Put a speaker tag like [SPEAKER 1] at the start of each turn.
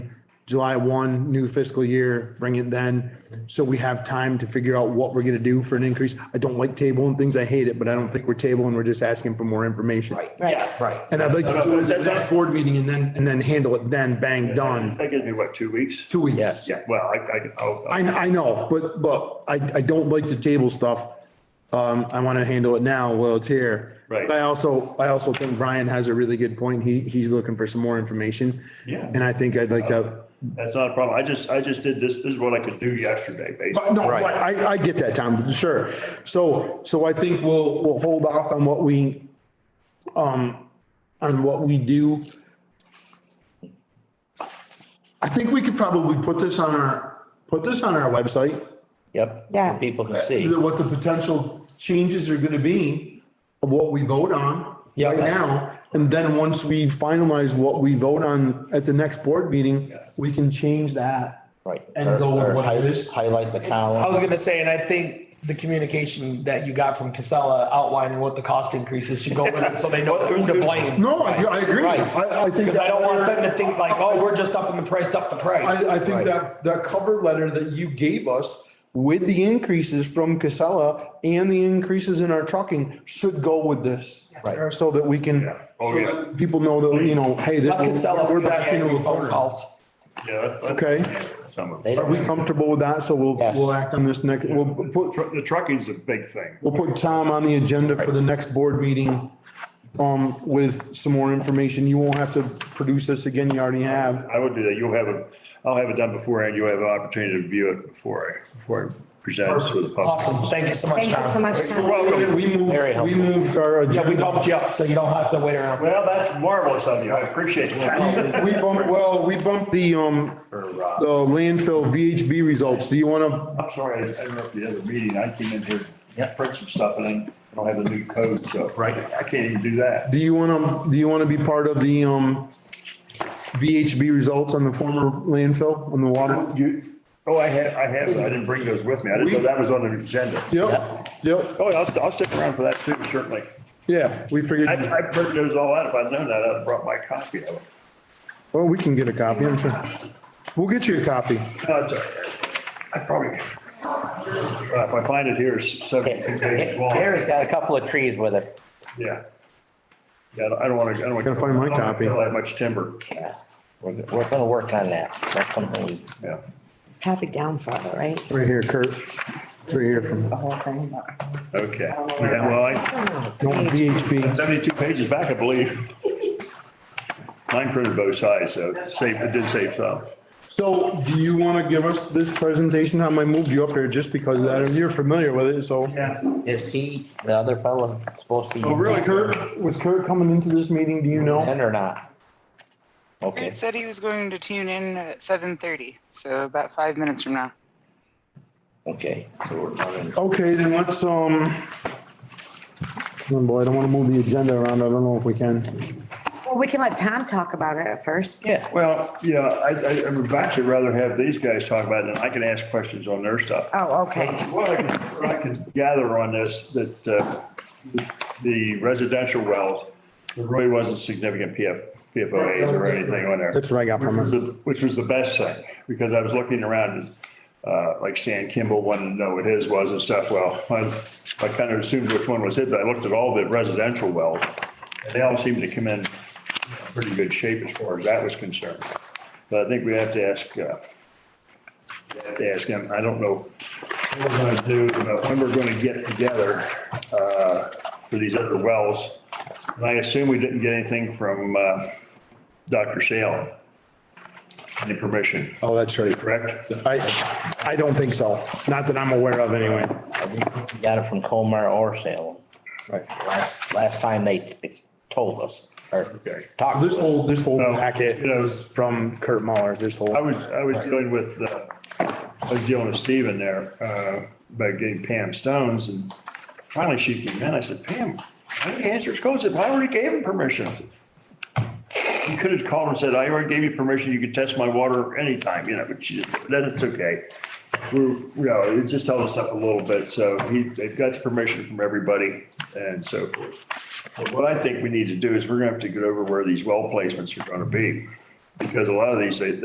[SPEAKER 1] July 1, new fiscal year, bring it then. So we have time to figure out what we're going to do for an increase. I don't like tabling things. I hate it, but I don't think we're tabling. We're just asking for more information.
[SPEAKER 2] Right.
[SPEAKER 3] Right.
[SPEAKER 2] Yeah, Right.
[SPEAKER 1] And I'd like to
[SPEAKER 4] No, no,
[SPEAKER 1] do it at
[SPEAKER 4] that's-
[SPEAKER 1] the next board meeting and then, and then handle it then, bang, done,
[SPEAKER 4] That gives me what, two weeks?
[SPEAKER 1] two weeks.
[SPEAKER 5] Yeah.
[SPEAKER 4] Yeah, well, I, oh, I, I'll-
[SPEAKER 1] I, I know, but, but I, I don't like to table stuff. Um, I want to handle it now while it's here.
[SPEAKER 4] Right.
[SPEAKER 1] But I also, I also think Brian has a really good point. He, he's looking for some more information.
[SPEAKER 4] Yeah.
[SPEAKER 1] And I think I'd like to,
[SPEAKER 4] that's not a problem. I just, I just did this, this is what I could do yesterday,
[SPEAKER 1] but
[SPEAKER 4] basically.
[SPEAKER 1] no,
[SPEAKER 5] Right.
[SPEAKER 1] I, I- I get that, Tom, sure. So, so I think we'll, we'll hold off on what we, um, on what we do. I think we could probably put this on our, put this on our website.
[SPEAKER 5] Yep.
[SPEAKER 3] Yeah.
[SPEAKER 5] for People to see.
[SPEAKER 1] the- what the potential changes are gonna be of what we vote on
[SPEAKER 5] Yeah.
[SPEAKER 1] right now. And then once we finalize what we vote on at the next board meeting, we can change that.
[SPEAKER 5] Right.
[SPEAKER 1] And go with
[SPEAKER 5] Or- or
[SPEAKER 1] what it is.
[SPEAKER 5] Highlight the
[SPEAKER 6] I
[SPEAKER 5] column.
[SPEAKER 6] was gonna say, and I think the communication that you got from Casella outlining what the cost increases should go with it, so they know who's to blame.
[SPEAKER 1] No, I, I agree.
[SPEAKER 5] Right.
[SPEAKER 1] I, I think.
[SPEAKER 6] Because I don't want them to think like, oh, we're just upping the price, up the price.
[SPEAKER 1] I, I think that, that cover letter that you gave us with the increases from Casella and the increases in our trucking should go with this.
[SPEAKER 5] Right.
[SPEAKER 1] So that we can,
[SPEAKER 4] Yeah. Oh,
[SPEAKER 1] so
[SPEAKER 4] yeah.
[SPEAKER 1] that people know that, you know, hey,
[SPEAKER 6] Let
[SPEAKER 1] that
[SPEAKER 6] Casella,
[SPEAKER 1] we're
[SPEAKER 6] we're
[SPEAKER 1] back into a
[SPEAKER 6] phone
[SPEAKER 1] corner.
[SPEAKER 6] calls.
[SPEAKER 4] Yeah. that's-
[SPEAKER 1] Okay.
[SPEAKER 4] Some of
[SPEAKER 5] They
[SPEAKER 4] it.
[SPEAKER 1] Are we
[SPEAKER 5] don't,
[SPEAKER 1] comfortable with that? So we'll,
[SPEAKER 5] Yes.
[SPEAKER 1] we'll act on this next, we'll put,
[SPEAKER 4] Tru- The trucking's a big thing.
[SPEAKER 1] we'll put Tom on the agenda for the next board meeting. Um, with some more information. You won't have to produce this again. You already have.
[SPEAKER 4] I would do that. You'll have a, I'll have it done before and you'll have an opportunity to view it before I, before I present it to the public.
[SPEAKER 6] Awesome, thank you so much,
[SPEAKER 3] Thank you so
[SPEAKER 6] Tom.
[SPEAKER 3] much.
[SPEAKER 4] You're
[SPEAKER 3] Tom.
[SPEAKER 4] welcome.
[SPEAKER 1] We moved,
[SPEAKER 5] Very
[SPEAKER 1] we
[SPEAKER 5] helpful.
[SPEAKER 1] moved uh, our
[SPEAKER 6] Yeah, we
[SPEAKER 1] agenda.
[SPEAKER 6] bumped you up, so you don't have to wait around.
[SPEAKER 4] Well, that's marvelous of you. I appreciate that.
[SPEAKER 1] We bumped, well, we bumped the, um,
[SPEAKER 4] Or, uh,
[SPEAKER 1] the landfill VHB results. Do you wanna,
[SPEAKER 4] I'm sorry, I interrupted the other meeting. I came in here, to print some stuff and I don't have the new code, so right, I can't even do that.
[SPEAKER 1] do you wanna, do you wanna be part of the, um, VHB results on the former landfill on the water?
[SPEAKER 4] You, oh, I had, I had, I didn't bring those with me. I didn't know that was on the agenda.
[SPEAKER 1] Yep, yep,
[SPEAKER 4] Oh, yeah, I'll, I'll stick around for that too, certainly.
[SPEAKER 1] yeah, we figured.
[SPEAKER 4] I, I printed those all out. If I'd known that, I'd have brought my copy of it.
[SPEAKER 1] Well, we can get a copy, I'm sure. We'll get you a copy.
[SPEAKER 4] No, it's all right. I probably, Uh, if I find it here, it's seventeen pages long.
[SPEAKER 5] Gary's got a couple of trees with it.
[SPEAKER 4] Yeah. Yeah, I don't- I don't want to, I don't want to.
[SPEAKER 1] Gotta find my copy.
[SPEAKER 4] I don't have much timber,
[SPEAKER 5] Yeah. We're, we're gonna work on that. That's something we.
[SPEAKER 4] yeah.
[SPEAKER 3] Copy down further, right?
[SPEAKER 1] Right here, Kurt. It's right here from,
[SPEAKER 3] The whole thing. but-
[SPEAKER 4] Okay. Yeah, well, I,
[SPEAKER 1] don't VHB.
[SPEAKER 4] seventy-two pages back, I believe. Mine printed both sides, so it saved, it did save some.
[SPEAKER 1] So do you want to give us this presentation? How I moved you up there just because of that, you're familiar with it, so.
[SPEAKER 4] Yeah.
[SPEAKER 5] Is he, the other fellow, supposed to? be
[SPEAKER 1] Oh, really, Kurt? Was Kurt coming into this meeting, do you know?
[SPEAKER 5] In or not? Okay.
[SPEAKER 7] Kurt said he was going to tune in at seven thirty, so about five minutes from now.
[SPEAKER 5] Okay. so we're running-
[SPEAKER 1] Okay, then let's, um, oh boy, I don't want to move the agenda around. I don't know if we can.
[SPEAKER 3] Well, we can let Tom talk about it at first.
[SPEAKER 5] Yeah.
[SPEAKER 4] Well, yeah, I, I, I would actually rather have these guys talk about it, and I can ask questions on their stuff.
[SPEAKER 3] Oh, okay.
[SPEAKER 4] What I can, what I can gather on this, that uh, the residential wells, there really wasn't significant PF, PFOAs or anything on there.
[SPEAKER 1] That's what I got
[SPEAKER 4] Which
[SPEAKER 1] from
[SPEAKER 4] was
[SPEAKER 1] her.
[SPEAKER 4] the- Which was the best thing, because I was looking around, uh, like Stan Kimball wanted to know what his was and stuff. Well, I, I kind of assumed which one was his, but I looked at all the residential wells, and they all seemed to come in pretty good shape as far as that was concerned. But I think we have to ask, uh, we have to ask him, I don't know what we're gonna do, but when we're gonna get together, uh, for these other wells. And I assume we didn't get anything from, uh, Dr. Salem. Any permission,
[SPEAKER 1] Oh, that's right.
[SPEAKER 4] correct?
[SPEAKER 1] I, I don't think so. Not that I'm aware of anyway.
[SPEAKER 5] I think we Got it from Colmar or Salem.
[SPEAKER 1] Right.
[SPEAKER 5] Last, last time they told us or
[SPEAKER 4] Okay.
[SPEAKER 5] talked.
[SPEAKER 1] This whole, this whole
[SPEAKER 4] No.
[SPEAKER 1] packet Oh. was from Kurt Muller, this whole.
[SPEAKER 4] I was, I was dealing with, uh, I was dealing with Steven there, uh, about getting Pam Stones and finally she came in. I said, Pam, why didn't you answer his call? I said, "Well, I already gave him permission. You could have called and said, I already gave you permission. You could test my water anytime, you know, but she just, then it's okay. We're, you know, it just held us up a little bit. So he, they've got the permission from everybody and so forth. But What I think we need to do is we're gonna have to get over where these well placements are gonna be. Because a lot of these, they,